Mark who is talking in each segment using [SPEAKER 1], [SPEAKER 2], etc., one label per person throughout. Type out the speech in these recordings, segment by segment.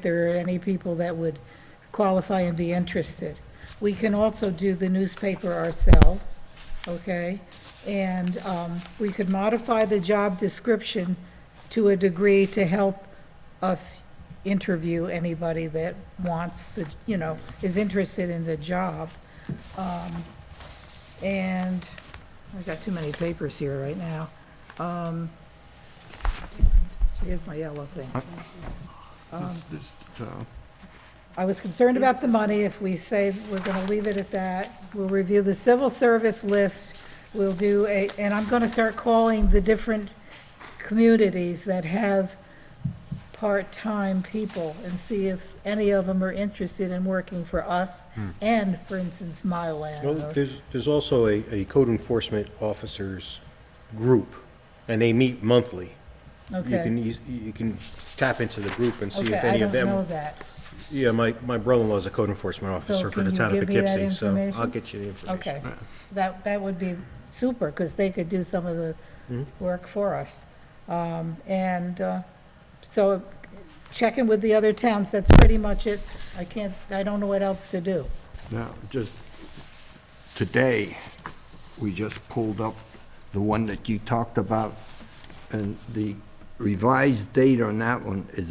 [SPEAKER 1] there are any people that would qualify and be interested. We can also do the newspaper ourselves, okay? And um, we could modify the job description to a degree to help us interview anybody that wants the, you know, is interested in the job. Um, And, I've got too many papers here right now. Um, Here's my yellow thing.
[SPEAKER 2] This- this, uh,
[SPEAKER 1] I was concerned about the money. If we say we're going to leave it at that, we'll review the civil service list. We'll do a, and I'm going to start calling the different communities that have part-time people and see if any of them are interested in working for us and, for instance, Mylan.
[SPEAKER 3] Hmm. Well,
[SPEAKER 1] or-
[SPEAKER 3] there's, there's also a, a code enforcement officers group, and they meet monthly. You can,
[SPEAKER 1] Okay.
[SPEAKER 3] eas- you can tap into the group and see if
[SPEAKER 1] Okay, I
[SPEAKER 3] any of
[SPEAKER 1] don't know
[SPEAKER 3] them.
[SPEAKER 1] that.
[SPEAKER 3] Yeah, my, my brother-in-law is a code enforcement officer for
[SPEAKER 1] can
[SPEAKER 3] the
[SPEAKER 1] you
[SPEAKER 3] town of
[SPEAKER 1] give me that
[SPEAKER 3] Poughkeepsie, so I'll
[SPEAKER 1] information?
[SPEAKER 3] get you the information.
[SPEAKER 1] Okay, that, that would be super, because they could do some of the work for us. Um, And uh, so checking with the other towns, that's pretty much it. I can't, I don't know what else to do.
[SPEAKER 2] Now, just, today, we just pulled up the one that you talked about, and the revised date on that one is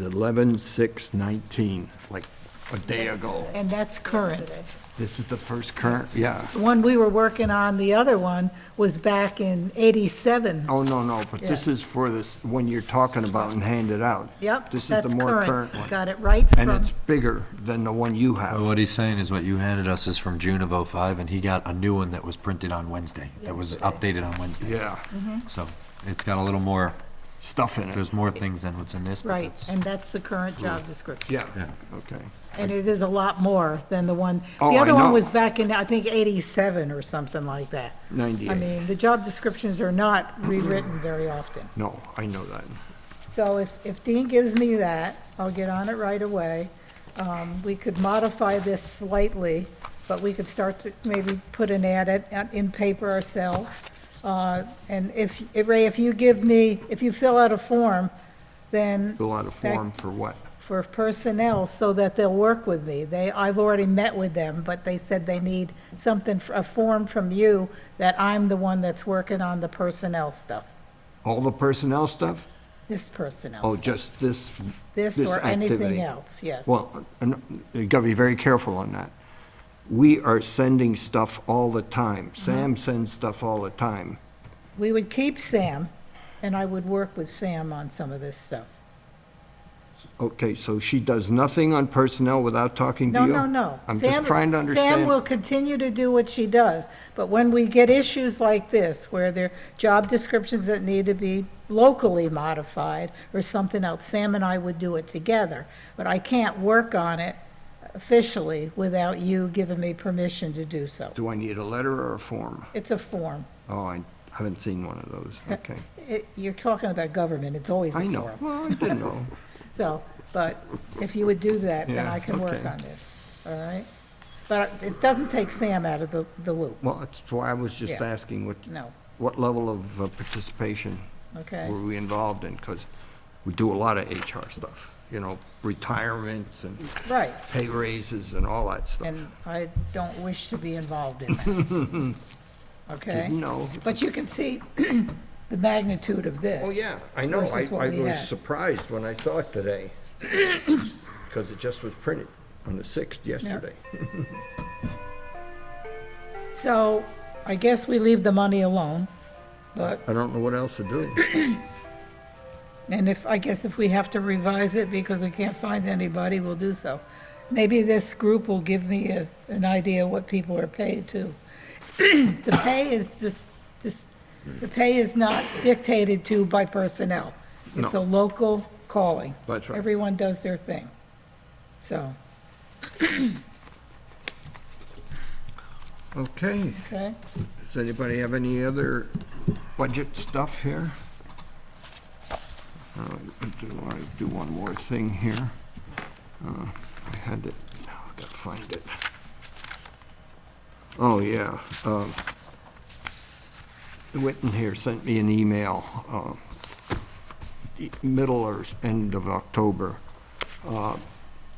[SPEAKER 2] 11/6/19, like a day ago.
[SPEAKER 1] And that's current.
[SPEAKER 2] This is the first current, yeah.
[SPEAKER 1] The one we were working on, the other one, was back in 87.
[SPEAKER 2] Oh, no, no, but this
[SPEAKER 1] Yeah.
[SPEAKER 2] is for this, one you're talking about and handed out.
[SPEAKER 1] Yep,
[SPEAKER 2] This is
[SPEAKER 1] that's
[SPEAKER 2] the more current one.
[SPEAKER 1] Got it right
[SPEAKER 2] And
[SPEAKER 1] from,
[SPEAKER 2] it's bigger than the one you
[SPEAKER 4] But
[SPEAKER 2] have.
[SPEAKER 4] Uh, What he's saying is what you handed us is from June of '05, and he got a new one that was printed on Wednesday, that was updated on Wednesday.
[SPEAKER 2] Yeah,
[SPEAKER 1] Mm-hmm.
[SPEAKER 4] So it's got a little more,
[SPEAKER 2] stuff in it.
[SPEAKER 4] there's more things than what's in this, but
[SPEAKER 1] right,
[SPEAKER 4] that's.
[SPEAKER 1] and that's the current job description.
[SPEAKER 2] Yeah,
[SPEAKER 4] Yeah.
[SPEAKER 2] okay.
[SPEAKER 1] And it is a lot more than the one,
[SPEAKER 2] Oh,
[SPEAKER 1] the
[SPEAKER 2] I
[SPEAKER 1] other one
[SPEAKER 2] know.
[SPEAKER 1] was back in, I think, 87 or something like that. I
[SPEAKER 2] 98.
[SPEAKER 1] mean, the job descriptions are not rewritten very often.
[SPEAKER 2] No, I know that.
[SPEAKER 1] So if, if Dean gives me that, I'll get on it right away. Um, We could modify this slightly, but we could start to maybe put an ad at- at- in paper ourselves. Uh, And if, if, Ray, if you give me, if you fill out a form, then.
[SPEAKER 2] Fill out a
[SPEAKER 1] that-
[SPEAKER 2] form for what?
[SPEAKER 1] for personnel so that they'll work with me. They, I've already met with them, but they said they need something, a form from you that I'm the one that's working on the personnel stuff,
[SPEAKER 2] All the personnel stuff?
[SPEAKER 1] this personnel
[SPEAKER 2] Oh,
[SPEAKER 1] stuff.
[SPEAKER 2] just this?
[SPEAKER 1] This or anything
[SPEAKER 2] activity?
[SPEAKER 1] else, yes.
[SPEAKER 2] Well, and you gotta be very careful on that. We are sending stuff all the time.
[SPEAKER 1] Mm-hmm.
[SPEAKER 2] Sam sends stuff all the time.
[SPEAKER 1] We would keep Sam, and I would work with Sam on some of this stuff.
[SPEAKER 2] Okay, so she does nothing on personnel without talking to
[SPEAKER 1] No,
[SPEAKER 2] you?
[SPEAKER 1] no, no.
[SPEAKER 2] I'm
[SPEAKER 1] Sam-
[SPEAKER 2] just trying to
[SPEAKER 1] Sam will
[SPEAKER 2] understand.
[SPEAKER 1] continue to do what she does, but when we get issues like this, where there are job descriptions that need to be locally modified or something else, Sam and I would do it together. But I can't work on it officially without you giving me permission to do so.
[SPEAKER 2] Do I need a letter or a form?
[SPEAKER 1] It's a form.
[SPEAKER 2] Oh, I haven't seen one of those. Okay.
[SPEAKER 1] It- You're talking about government, it's always a
[SPEAKER 2] I
[SPEAKER 1] form.
[SPEAKER 2] know. Well, I didn't know.
[SPEAKER 1] So, but if you would do that, then
[SPEAKER 2] Yeah,
[SPEAKER 1] I can work
[SPEAKER 2] okay.
[SPEAKER 1] on this, all right? But it doesn't take Sam out of the, the loop,
[SPEAKER 2] Well, that's why I was just
[SPEAKER 1] Yeah.
[SPEAKER 2] asking what,
[SPEAKER 1] no,
[SPEAKER 2] what level of uh, participation
[SPEAKER 1] okay?
[SPEAKER 2] were we involved in? Because we do a lot of HR stuff, you know, retirements and
[SPEAKER 1] Right,
[SPEAKER 2] pay raises and all that stuff.
[SPEAKER 1] and I don't wish to be involved in that.
[SPEAKER 2] Didn't
[SPEAKER 1] Okay?
[SPEAKER 2] know.
[SPEAKER 1] But you can see the magnitude of this.
[SPEAKER 2] Oh, yeah, I know. I,
[SPEAKER 1] Versus what
[SPEAKER 2] I
[SPEAKER 1] we
[SPEAKER 2] was
[SPEAKER 1] had.
[SPEAKER 2] surprised when I saw it today, because it just was printed on the 6th yesterday.
[SPEAKER 1] So I guess we leave the money alone, but,
[SPEAKER 2] I don't know what else to do.
[SPEAKER 1] and if, I guess if we have to revise it because we can't find anybody, we'll do so. Maybe this group will give me a, an idea what people are paid to. The pay is this, this, the pay is not dictated to by personnel. It's a
[SPEAKER 2] No.
[SPEAKER 1] local calling.
[SPEAKER 2] That's right.
[SPEAKER 1] Everyone does their thing, so,
[SPEAKER 2] Okay,
[SPEAKER 1] okay?
[SPEAKER 2] does anybody have any other budget stuff here? Uh, I do want to do one more thing here. Uh, I had it, now i got to find it. Oh, yeah. um, Witten here sent me an email, uh, e- middle or s- end of October, uh,